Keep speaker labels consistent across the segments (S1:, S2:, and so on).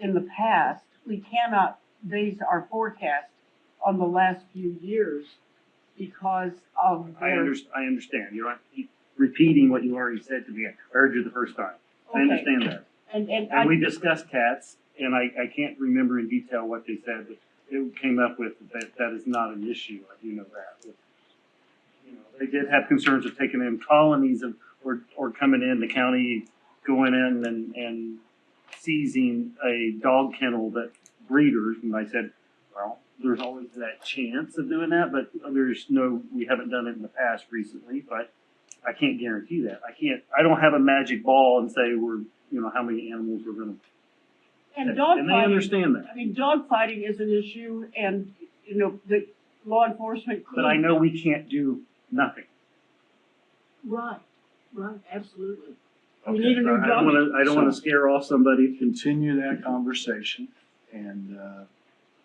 S1: in the past, we cannot base our forecast on the last few years because of.
S2: I
S1: their-
S2: under, I understand, you're not keep repeating what you already said to me, I heard you the first time, I
S1: Okay.
S2: understand that.
S1: And, and
S2: And
S1: I,
S2: we discussed cats, and I, I can't remember in detail what they said, but it came up with that that is not an issue, I do know that. You know, They did have concerns of taking in colonies of, or, or coming in, the county going in and, and seizing a dog kennel that breeders, and I said, well, there's always that chance of doing that, but there's no, we haven't done it in the past recently, but I can't guarantee that. I can't, I don't have a magic ball and say we're, you know, how many animals we're gonna.
S1: and
S2: And they
S1: dogfighting,
S2: understand that,
S1: I mean, dogfighting is an issue and, you know, the law enforcement could.
S2: but I know we can't do nothing.
S1: Right, right, absolutely. We need
S3: Okay,
S1: a
S2: I
S1: new
S2: don't
S1: dog.
S2: wanna, I don't wanna scare off somebody.
S3: continue that conversation and, uh,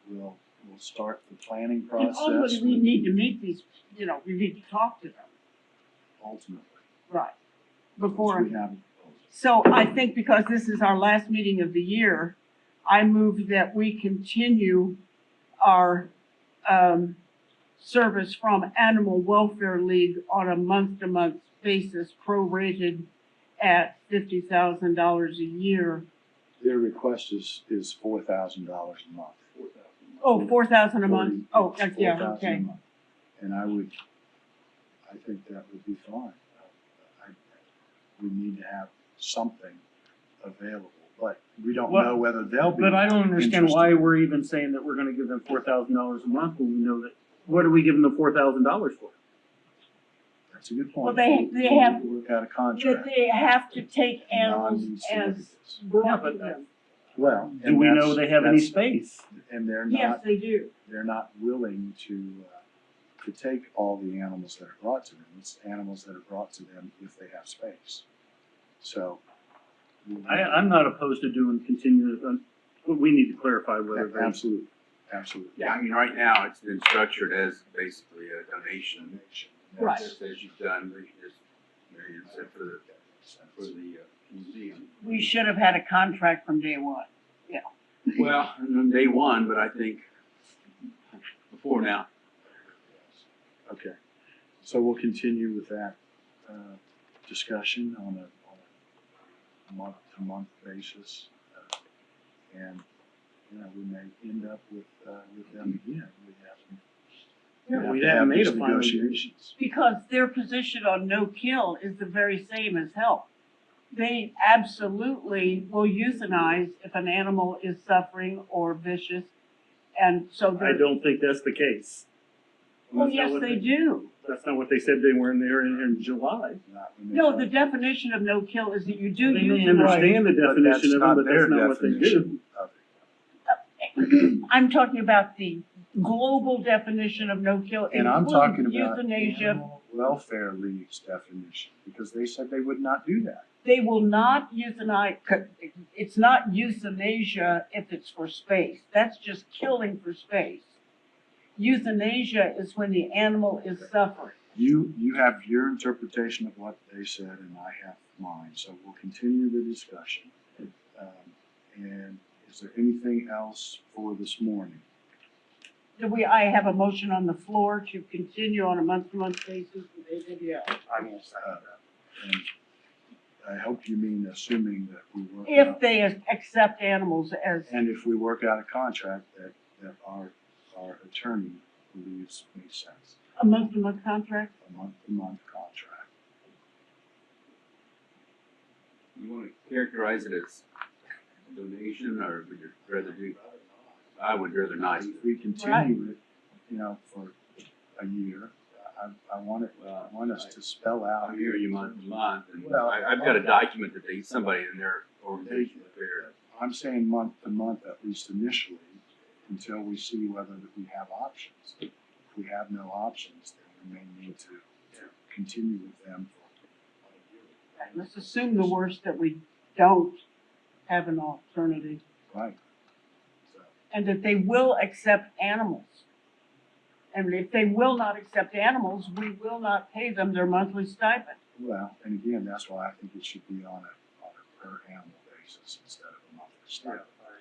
S3: we'll, we'll start the planning
S1: And
S3: process.
S1: ultimately, we need to meet these, you know, we need to talk to them,
S3: Ultimately,
S1: right?
S3: once
S1: Before.
S3: we have a proposal.
S1: So I think because this is our last meeting of the year, I move that we continue our, um, service from Animal Welfare League on a month-to-month basis, prorated at fifty thousand dollars a year.
S3: Their request is, is four thousand dollars a month.
S1: Oh, four thousand a month,
S3: Forty-
S1: oh, that's, yeah,
S3: 4,000 a
S1: okay.
S3: month. And I would, I think that would be fine. I- We need to have something available, but we don't
S2: Well,
S3: know whether they'll be.
S2: But I don't understand why we're even saying that we're gonna give them four thousand dollars a month when we know that, what are we giving them four thousand dollars for?
S3: That's a good
S1: Well,
S3: point.
S1: they- they have-
S3: We've got a
S1: That
S3: contract.
S1: they have to take animals as
S3: Non-certificates.
S1: brought
S2: Yeah,
S1: to
S2: but
S1: them.
S3: Well.
S2: Do
S3: and
S2: we
S3: that's-
S2: know they have any
S3: that's-
S2: space?
S3: And they're
S1: Yes,
S3: not,
S1: they do.
S3: they're not willing to, uh, to take all the animals that are brought to them. It's animals that are brought to them if they have space. So. we-
S2: I, I'm not opposed to doing continuous, um, but we need to clarify whether
S3: a-
S2: they.
S3: Absolutely, absolutely.
S4: Yeah, I mean, right now, it's been structured as basically a donation. That's
S1: Right.
S4: Just as you've done, we just, you know, you said for the, for the uh, museum.
S1: We should have had a contract from day one.
S4: Well, on day one, but I think before now,
S3: Okay, so we'll continue with that, uh, discussion on a, on a month-to-month basis. uh, And, you know, we may end up with, uh, with them again. We have- we have.
S2: We
S3: to
S2: haven't
S3: have
S2: made
S3: these
S2: a final decision.
S3: Negotiations.
S1: Because their position on no kill is the very same as health. They absolutely will euthanize if an animal is suffering or vicious. And so
S2: I
S1: they're,
S2: don't think that's the case.
S1: well,
S2: That's not
S1: yes,
S2: what
S1: they do.
S2: That's not what they said they were in there in, in July.
S3: Not when they
S1: No,
S3: try
S1: the
S3: to-
S1: definition of no kill is that you
S2: They
S1: do
S2: may
S1: euthanize.
S2: understand the
S3: But that's
S2: definition of
S3: not
S2: it, but
S3: their
S2: that's not what they do.
S3: definition of it.
S1: I'm talking about the global definition of no kill,
S3: And I'm talking
S1: including
S3: about
S1: euthanasia.
S3: Animal Welfare League's definition, because they said they would not do that.
S1: They will not euthanize, it's not euthanasia if it's for space. That's just killing for space. Euthanasia is when the animal is suffering.
S3: You, you have your interpretation of what they said and I have mine, so we'll continue the discussion. Um, And is there anything else for this morning?
S1: Do we, I have a motion on the floor to continue on a month-to-month basis with AWL.
S2: I won't say
S3: Uh, And I hope you mean assuming that we work
S1: If
S3: out-
S1: they accept animals as,
S3: and if we work out a contract that, that our, our attorney believes makes sense,
S1: a month-to-month contract,
S3: a month-to-month contract.
S4: you wanna characterize it as a donation, or would you rather do? I would rather not.
S3: If we continue it, you know, for a year, I, I want it, I
S4: Well,
S3: want us to spell out.
S4: I hear you month to month, and
S3: Well,
S4: I, I've got a document that they, somebody in their organization prepared.
S3: I'm saying month to month, at least initially, until we see whether that we have options. If we have no options, then we may need to continue with them for
S1: let's assume the worst that we don't have an alternative
S3: a year. Right. So,
S1: and that they will accept animals. And if they will not accept animals, we will not pay them their monthly stipend.
S3: Well, and again, that's why I think it should be on a, on a per animal basis instead of a monthly stipend.